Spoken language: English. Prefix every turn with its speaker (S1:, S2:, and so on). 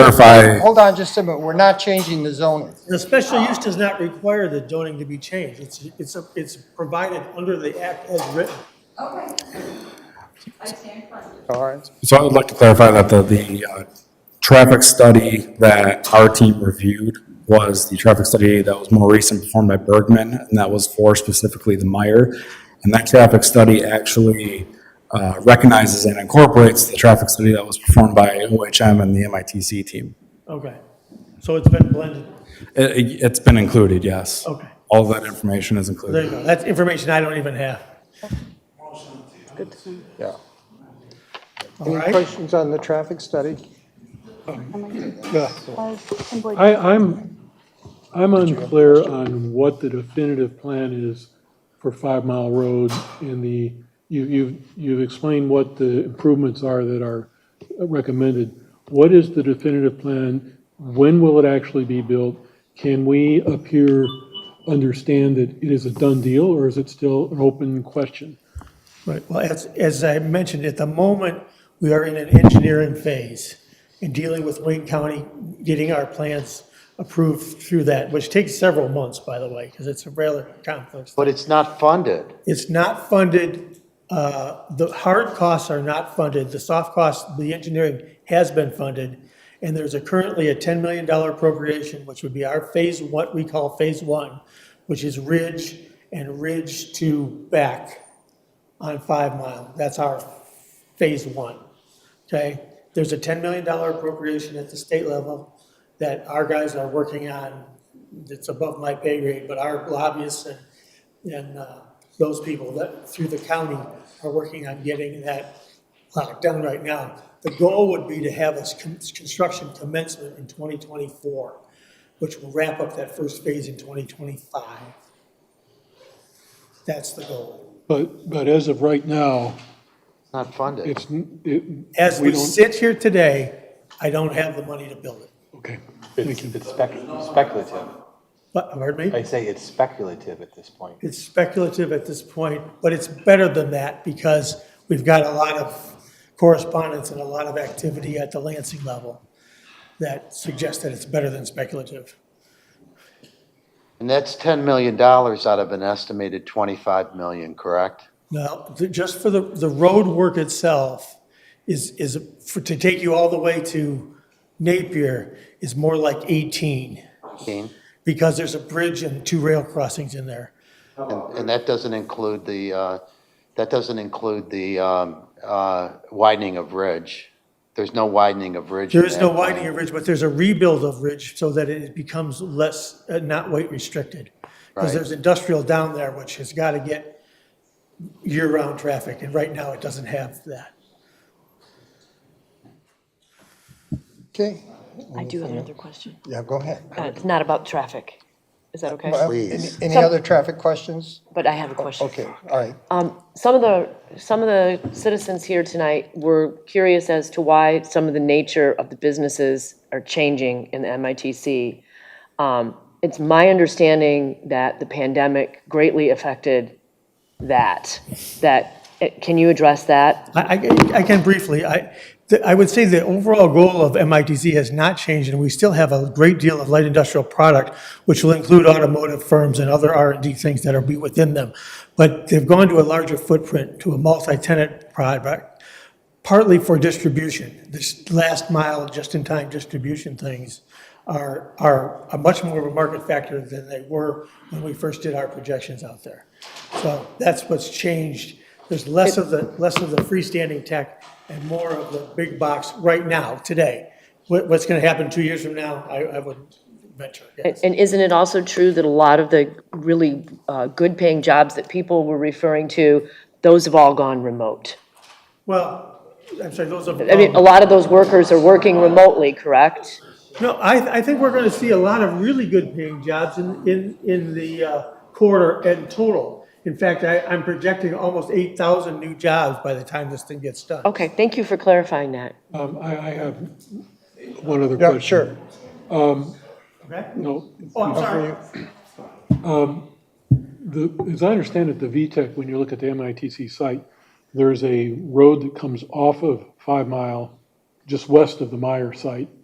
S1: clarify,
S2: Hold on just a minute, we're not changing the zoning.
S3: The special use does not require the zoning to be changed. It's, it's, a- it's provided under the act as written.
S4: Okay. I stand corrected.
S2: All right,
S1: so I would like to clarify that the, the uh, traffic study that our team reviewed was the traffic study that was more recent performed by Bergman, and that was for specifically the Meyer. And that traffic study actually uh, recognizes and incorporates the traffic study that was performed by OHM and the MITC team.
S3: Okay. So it's been blended.
S1: It, it- it's been included, yes.
S3: Okay.
S1: All that information is
S3: There
S1: included.
S3: you go. That's information I don't even have.
S2: yeah.
S3: All
S2: Any
S3: right.
S2: questions on the traffic study? Yeah.
S5: I, I'm, I'm unclear on what the definitive plan is for Five Mile Road and the, you, you've, you've explained what the improvements are that are recommended. What is the definitive plan? When will it actually be built? Can we up here understand that it is a done deal, or is it still an open question?
S3: Right, well, as, as I mentioned, at the moment, we are in an engineering phase and dealing with Wayne County, getting our plans approved through that, which takes several months, by the way, because it's a rather complex.
S6: But it's not funded.
S3: It's not funded, uh, the hard costs are not funded, the soft costs, the engineering has been funded, and there's a currently a $10 million appropriation, which would be our phase, what we call phase one, which is ridge and ridge to back on Five Mile. That's our phase one, okay? There's a $10 million appropriation at the state level that our guys are working on. It's above my pay grade, but our lobbyists and and uh, those people that, through the county, are working on getting that locked down right now. The goal would be to have this con- construction commencement in 2024, which will wrap up that first phase in 2025. That's the goal.
S5: But, but as of right now,
S6: It's not funded.
S5: it's, n- it.
S3: As we
S5: don't-
S3: sit here today, I don't have the money to build it.
S5: Okay,
S7: It's it's spec- speculative.
S3: But, pardon me?
S7: I say it's speculative at this point.
S3: It's speculative at this point, but it's better than that because we've got a lot of correspondence and a lot of activity at the Lansing level that suggests that it's better than speculative.
S6: And that's $10 million out of an estimated 25 million, correct?
S3: Now, th- just for the, the road work itself is, is, for- to take you all the way to Napier is more like 18
S6: Dean?
S3: because there's a bridge and two rail crossings in there.
S6: And and that doesn't include the, uh, that doesn't include the um, uh, widening of Ridge. There's no widening of Ridge. in
S3: There is no
S6: that plan.
S3: widening of ridge, but there's a rebuild of ridge so that it becomes less, uh, not weight restricted. Because
S6: Right.
S3: there's industrial down there, which has got to get year-round traffic, and right now it doesn't have that.
S2: Okay,
S8: I do have another question.
S2: yeah, go ahead.
S8: Uh, It's not about traffic. Is that okay?
S6: Please.
S2: Any other traffic questions?
S8: But I have a question.
S2: Okay, all right.
S8: Um, Some of the, some of the citizens here tonight were curious as to why some of the nature of the businesses are changing in the MITC. Um, It's my understanding that the pandemic greatly affected that, that, eh, can you address that?
S3: I, I- I can briefly, I, th- I would say the overall goal of MITC has not changed, and we still have a great deal of light industrial product, which will include automotive firms and other R and D things that'll be within them. But they've gone to a larger footprint, to a multi-tenant product, partly for distribution. This last mile, just-in-time distribution things are, are a much more of a market factor than they were when we first did our projections out there. So that's what's changed. There's less of the, less of the freestanding tech and more of the big box right now, today. What, what's gonna happen two years from now, I, I would venture, yes.
S8: And isn't it also true that a lot of the really uh, good-paying jobs that people were referring to, those have all gone remote?
S3: Well, I'm sorry, those are.
S8: I mean, a lot of those workers are working remotely, correct?
S3: No, I, I think we're gonna see a lot of really good paying jobs in, in, in the uh, quarter and total. In fact, I, I'm projecting almost eight thousand new jobs by the time this thing gets done.
S8: Okay, thank you for clarifying that.
S5: um, I, I have one other question.
S2: Yeah, sure.
S3: Okay?
S5: No,
S3: Oh, I'm sorry.
S5: The, as I understand it, the VTEC, when you look at the MITC site, there's a road that comes off of Five Mile, just west of the Meyer site,